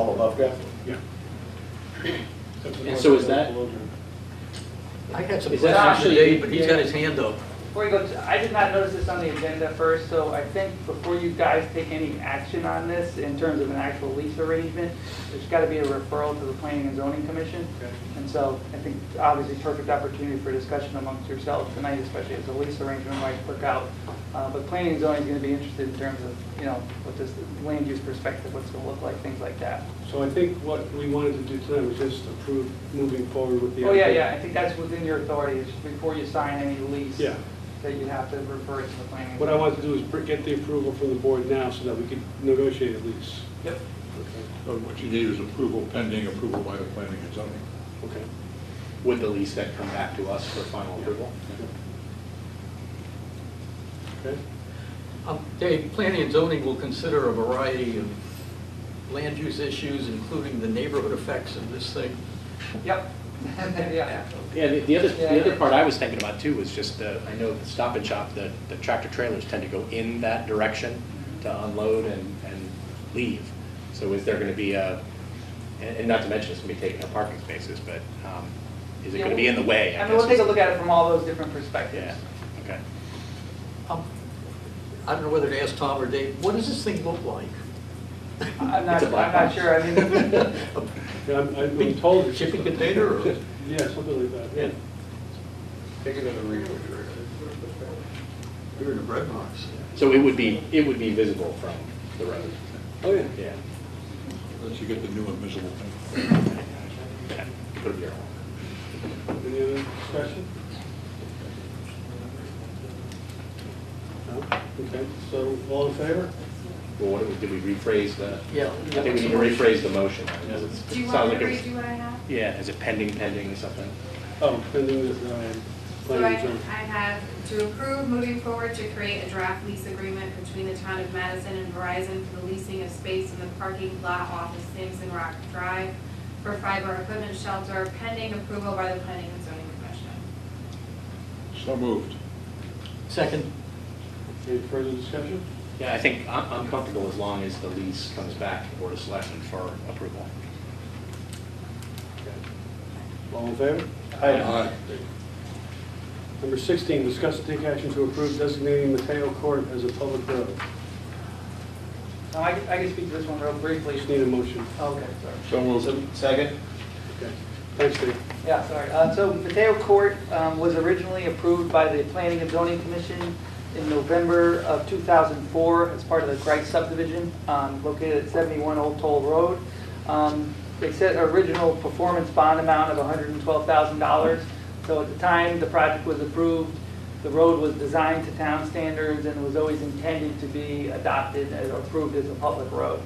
above ground? Yeah. And so is that- I got some Is that questions actually- to Dave, but he's got his hand up. Before you go, to- I did not notice this on the agenda first, so I think before you guys take any action on this in terms of an actual lease arrangement, there's got to be a referral to the Planning and Zoning Commission. And so I think obviously perfect opportunity for discussion amongst yourselves tonight, especially as the lease arrangement might work out. Uh, But planning and zoning is going to be interested in terms of, you know, what this land use perspective, what's going to look like, things like that. So I think what we wanted to do tonight was just approve moving forward with the. Oh, yeah, yeah, I think that's within your authority, it's just before you sign any lease. Yeah. That you have to refer it to the planning. and What I zoning. wanted to do is br- get the approval from the board now so that we could negotiate a lease. Yep. So What you need is approval pending approval by the planning and zoning. Okay. Would the lease then come back to us for final approval? Okay. Um, Dave, planning and zoning will consider a variety of land use issues, including the neighborhood effects of this thing. Yep. Yeah. Yeah, the- the other, Yeah. the other part I was thinking about too was just the, I know the Stop and Shop, the, the tractor trailers tend to go in that direction to unload and, and leave. So is there gonna be a, and, and not to mention it's gonna be taking up parking spaces, but, um, is it Yeah, gonna be in the way? I mean, we'll guess take a is- look at it from all those different perspectives. Yeah, okay. Um, I don't know whether to ask Tom or Dave, what does this thing look like? I'm not, It's a I'm black not box. sure, I mean, A Yeah, I'm, I'm being told. it's- Shipping container or- Yeah, something like that, yeah. Bigger than a refrigerator. Bigger than a bread box. So it would be, it would be visible from the road, Oh, yeah. yeah. Once you get the new and miserable thing. Yeah, Put a mural. Any other discussion? No? Okay, so all in favor? Well, what, do we- did we rephrase the? Yeah. I think we need to rephrase the motion. because it's- Do you sounds want like me to it was- redo what I have? Yeah, is it pending, pending or something? Oh, pending this, um, So I, planning I and zoning. have to approve moving forward to create a draft lease agreement between the town of Madison and Verizon for the leasing of space in the parking lot off of Sampson Rock Drive for fiber equipment shelter pending approval by the planning and zoning commission. So moved. Second, Any further discussion? Yeah, I think I'm I'm comfortable as long as the lease comes back to Board of Selectmen for approval. All in favor? Aye. Number 16, discuss and take action to approve designating Mateo Court as a public road. no, I can, I can speak to this one real briefly. Just need a motion. Okay, sorry. So moved. Second? Okay. Thanks, Dave. Yeah, sorry. Uh, So Mateo Court um, was originally approved by the Planning and Zoning Commission in November of 2004 as part of the Grice subdivision um, located at 71 Old Toll Road. Um, They set an original performance bond amount of $112,000. So at the time the project was approved, the road was designed to town standards and was always intended to be adopted and approved as a public road.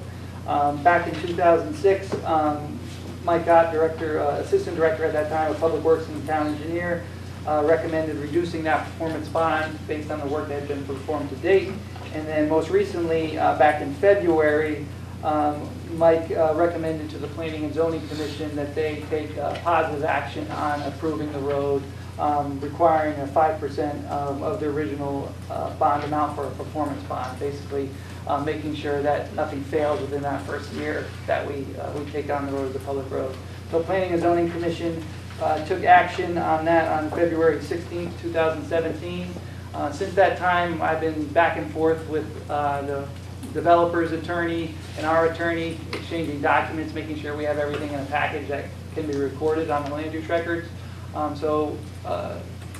Um, Back in 2006, um, Mike Gott, director, uh, assistant director at that time of Public Works and town engineer, uh, recommended reducing that performance bond based on the work that had been performed to date. And then most recently, uh, back in February, um, Mike uh, recommended to the Planning and Zoning Commission that they take uh, positive action on approving the road, um, requiring a 5% of of the original uh, bond amount for a performance bond, basically uh, making sure that nothing fails within that first year that we, uh, we take on the road as a public road. So Planning and Zoning Commission uh, took action on that on February 16, 2017. Uh, Since that time, I've been back and forth with uh, the developer's attorney and our attorney, exchanging documents, making sure we have everything in a package that can be recorded on the land use records. Um, So uh,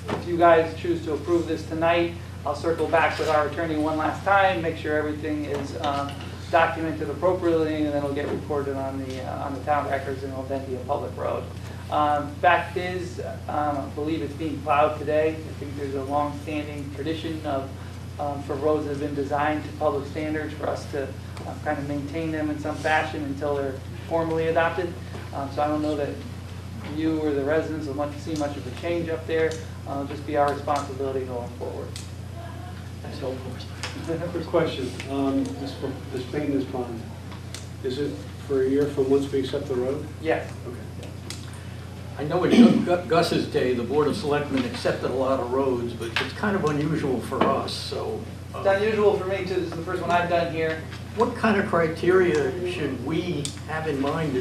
if you guys choose to approve this tonight, I'll circle back with our attorney one last time, make sure everything is um, documented appropriately, and then it'll get recorded on the, uh, on the town records, and it'll then be a public road. Um, Fact is, um, I believe it's being plowed today. I think there's a long-standing tradition of, um, for roads that have been designed to public standards, for us to uh, kind of maintain them in some fashion until they're formally adopted. Um, So I don't know that you or the residents will want to see much of a change up there. Uh, Just be our responsibility going forward. that's helpful. I have a question. Um, This this maintenance bond, is it for a year from once we accept the road? Yes. Okay. I know in Gu- Gu- Gus's day, the Board of Selectmen accepted a lot of roads, but it's kind of unusual for us, so uh, It's unusual for me too, this is the first one I've done here. What kind of criteria should we have in mind